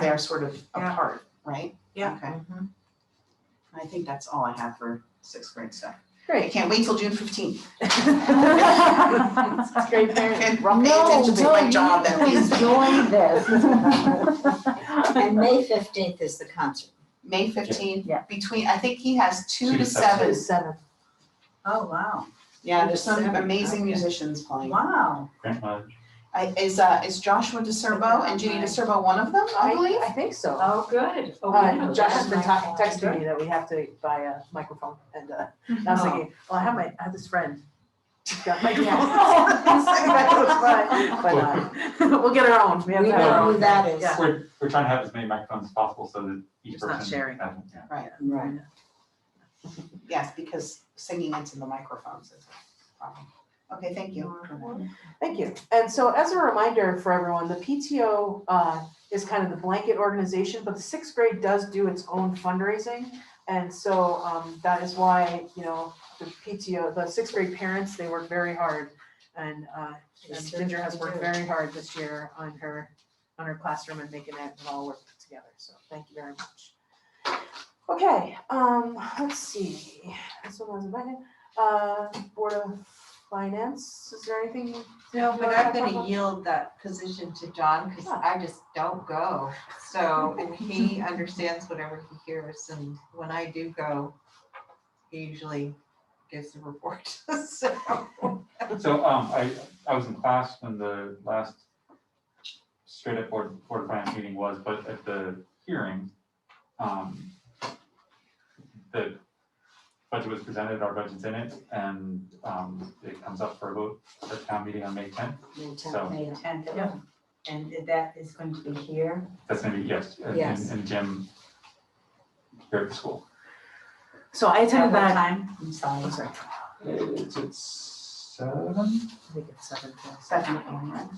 they're sort of Yeah. apart, right? Yeah. Mm-hmm. Okay, I think that's all I have for sixth grade stuff. I Great. can't wait till June fifteenth. It's great parenting. Rob, pay attention to my job that means. Enjoy this. And May fifteenth is the concert. May fifteenth, Yeah. between, I think he has two Two to to seven. seven. Seven. Oh, wow, Yeah, Two there's to some seven, amazing okay. musicians playing. wow. Grandmother. I, is, uh, is Joshua DeSerbo and Judy Right. DeSerbo one of them, I believe? I think so. Oh, good. Oh, Uh, wow. Josh has been ta- That's texting me that we have to buy a microphone and, uh, and I was thinking, well, I have my, I have this friend. She's got microphones. But, uh, we'll get our own. We have We to have our know own. who that is. Yeah. We're, we're trying to have as many microphones as possible so that each It's not person. sharing. has one, yeah. Right. Yes, because singing into the microphones is a problem. Okay, thank you. Thank you. And so as a reminder for everyone, the PTO uh, is kind of the blanket organization, but the sixth grade does do its own fundraising. And so um, that is why, you know, the PTO, the sixth grade parents, they work very hard. And uh, They and certainly Ginger has worked do. very hard this year on her, on her classroom and making it all work together. So thank you very much. Okay, um, let's see. This one was invited. Uh, Board of Finance, is there anything No, but I'm gonna yield that position to John, because I just don't go. So and he understands whatever he hears, and when I do go, he usually gives the report, so. So, um, I, I was in class when the last straight up board, board of finance meeting was, but at the hearing, um, the budget was presented, our budget's in it, and, um, it comes up for a vote at town meeting on May tenth. May So- tenth. May tenth. Yeah. And that is going to be here. That's gonna be, yes, and, Yes. and Jim here at the school. So I At what attended that, time? I'm sorry. It's, it's seven? I think it's seven to Seven P M, right?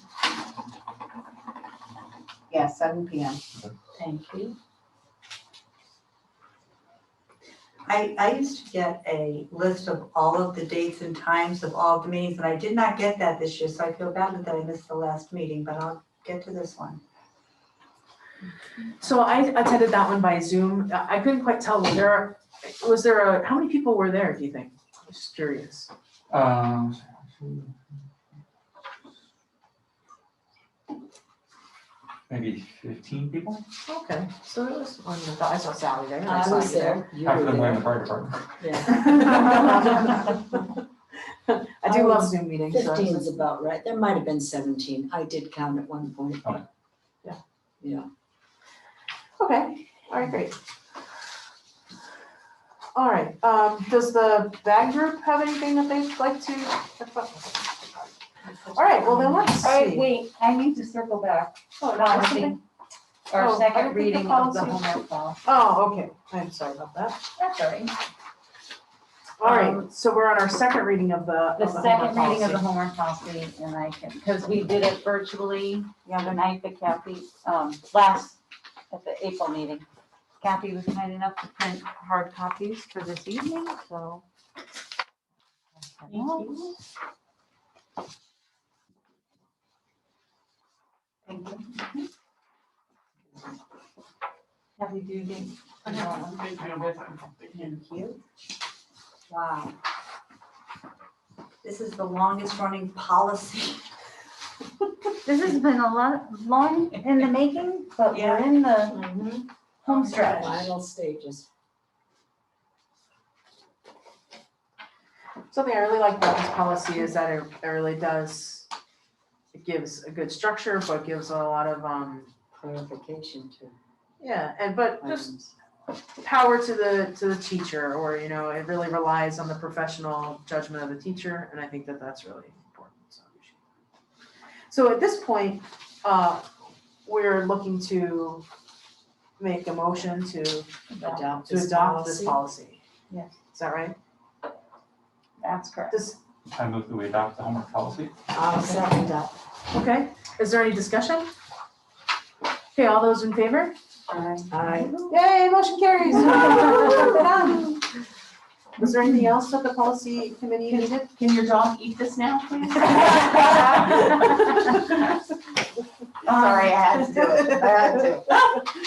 Yeah, seven P M. Thank you. I, I used to get a list of all of the dates and times of all the meetings, and I did not get that this year, so I feel bad that I missed the last meeting, but I'll get to this one. So I attended that one by Zoom. I I couldn't quite tell, was there, was there a, how many people were there, do you think? I'm just curious. Um, Maybe fifteen people? Okay, so there was, one that- I saw Sally there. and I saw was you there. You Half were of them were in the there. fire department. Yeah. I I do love was Zoom meetings. so I was Fifteen is like- about right. There might have been seventeen. I did count at one point. Okay. Yeah. Yeah. Okay, all right, great. All right, um, does the bag group have anything that they'd like to? All right, well then let's see. All right, wait, I need to circle back, Oh, no, I one think- thing, Oh, I our don't think second the reading of the policy- homework policy. Oh, okay, I'm sorry about that. That's all right. All right, Um, so we're on our second reading of the, of the The second reading of the homework policy. homework policy, and I can, because we did it virtually the other night, but Kathy, um, last, at the April meeting. Kathy was kind enough to print hard copies for this evening, so. Thank you. Kathy, do you think? Thank you. Wow. This is the longest running policy. This has been a lot, long in the making, but we're in the Mm-hmm. Mhm. home Final stages. Something I really like about this policy is that it, it really does, it gives a good structure, but gives a lot of, um, Clarification to yeah, and but just items. power to the, to the teacher, or, you know, it really relies on the professional judgment of the teacher, and I think that that's really important, so. we should- So at this point, uh, we're looking to make a motion to Adopt to this adopt policy. this policy. Yes. Is that right? That's correct. This, I move that we adopt the homework policy. I'll second that. okay, is there any discussion? Okay, all those in favor? I Yay, motion carries. All Was there anything else that the policy committee needed? Can your dog eat this now, please? Sorry, Tá. Sorry, I had to do it. I had to.